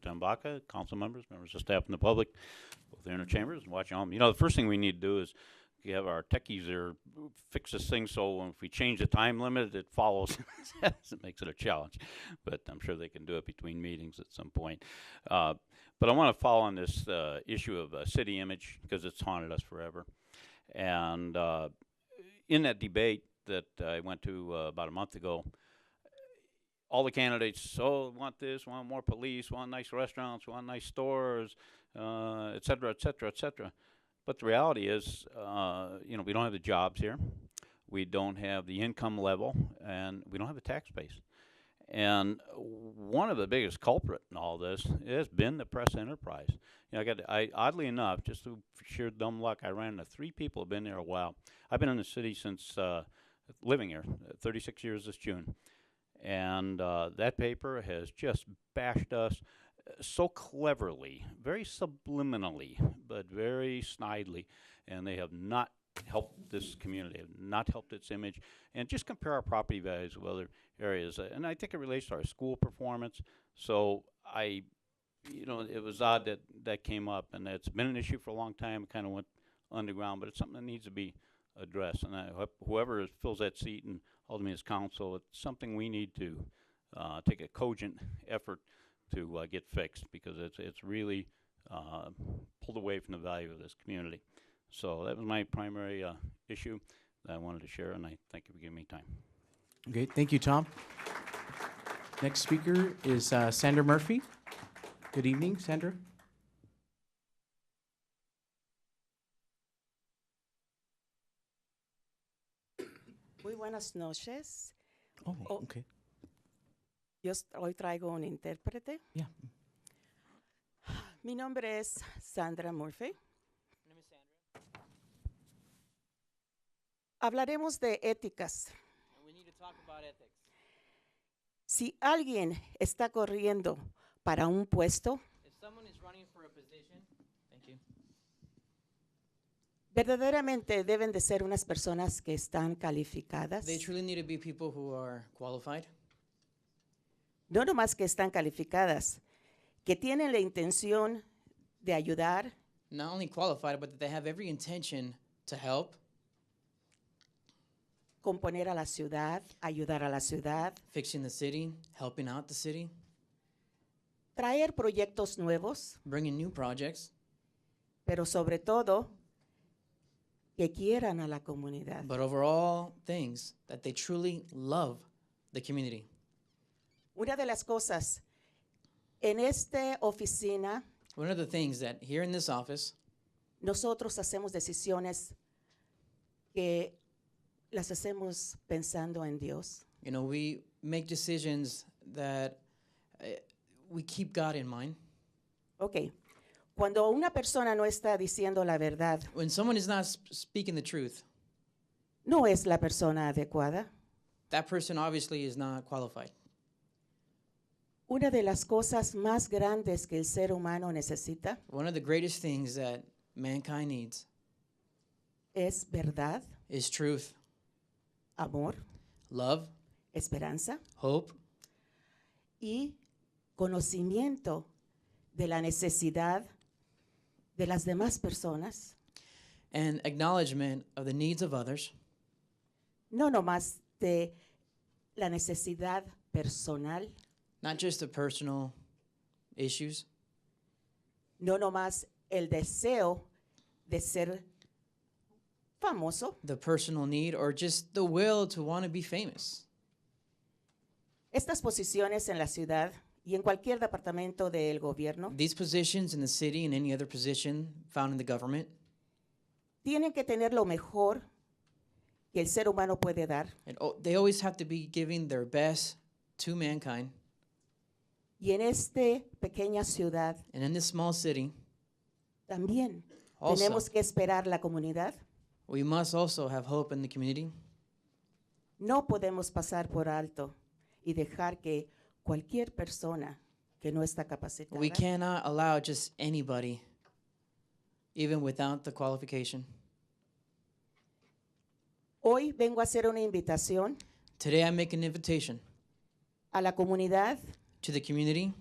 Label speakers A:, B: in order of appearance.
A: Potembaka, council members, members of staff and the public, both in their chambers and watching home. You know, the first thing we need to do is you have our techies there fix this thing so if we change the time limit, it follows. it makes it a challenge, but I'm sure they can do it between meetings at some point. Uh, but I want to follow on this uh, issue of uh, city image because it's haunted us forever. And uh, in that debate that I went to uh, about a month ago, all the candidates, oh, want this, want more police, want nice restaurants, want nice stores, uh, et cetera, et cetera, et cetera. But the reality is, uh, you know, we don't have the jobs here. We don't have the income level and we don't have the tax base. And one of the biggest culprit in all this has been the press enterprise. You know, I got, I, oddly enough, just through sheer dumb luck, I ran into three people who've been there a while. I've been in the city since, uh, living here, uh, thirty-six years this June. And, uh, that paper has just bashed us uh, so cleverly, very subliminally, but very snidely. And they have not helped this community, have not helped its image. And just compare our property values with other areas. Uh, And I think it relates to our school performance. So I, you know, it was odd that that came up, and it's been an issue for a long time. It kind of went underground, but it's something that needs to be addressed. And I hope whoever is- fills that seat and ultimately is council, it's something we need to uh, take a cogent effort to uh, get fixed because it's it's really uh, pulled away from the value of this community. So that was my primary uh, issue that I wanted to share, and I thank you for giving me time.
B: Okay, thank you, Tom. Next speaker is uh, Sandra Murphy. Good evening, Sandra.
C: Muy buenas noches.
B: Oh,
C: Oh.
B: okay.
C: Yo s- hoy traigo un intérprete.
B: Yeah.
C: Mi nombre es Sandra Murphy. Hablaremos de éticas. Si alguien está corriendo para un puesto,
D: If someone is running for a position, thank you.
C: verdaderamente deben de ser unas personas que están calificadas.
D: They truly need to be people who are qualified,
C: No nomás que están calificadas, que tienen la intención de ayudar,
D: not only qualified, but that they have every intention to help,
C: componer a la ciudad, ayudar a la ciudad,
D: fixing the city, helping out the city,
C: traer proyectos nuevos,
D: bringing new projects,
C: pero sobre todo que quieran a la comunidad.
D: but overall things that they truly love the community.
C: Una de las cosas en esta oficina
D: One of the things that here in this office,
C: nosotros hacemos decisiones que las hacemos pensando en Dios.
D: you know, we make decisions that uh, we keep God in mind.
C: Ok, cuando una persona no está diciendo la verdad,
D: When someone is not sp- speaking the truth,
C: no es la persona adecuada.
D: that person obviously is not qualified.
C: Una de las cosas más grandes que el ser humano necesita
D: One of the greatest things that mankind needs
C: es verdad,
D: is truth,
C: amor,
D: love,
C: esperanza
D: hope,
C: y conocimiento de la necesidad de las demás personas,
D: and acknowledgement of the needs of others,
C: no nomás de la necesidad personal,
D: not just the personal issues,
C: no nomás el deseo de ser famoso.
D: the personal need, or just the will to want to be famous.
C: Estas posiciones en la ciudad y en cualquier departamento del gobierno
D: These positions in the city and any other position found in the government,
C: tienen que tener lo mejor que el ser humano puede dar.
D: and o- they always have to be giving their best to mankind.
C: Y en esta pequeña ciudad
D: And in this small city,
C: también
D: Also.
C: tenemos que esperar la comunidad.
D: we must also have hope in the community.
C: No podemos pasar por alto y dejar que cualquier persona que no está capacitada
D: We cannot allow just anybody, even without the qualification.
C: Hoy vengo a hacer una invitación
D: Today, I make an invitation
C: a la comunidad
D: to the community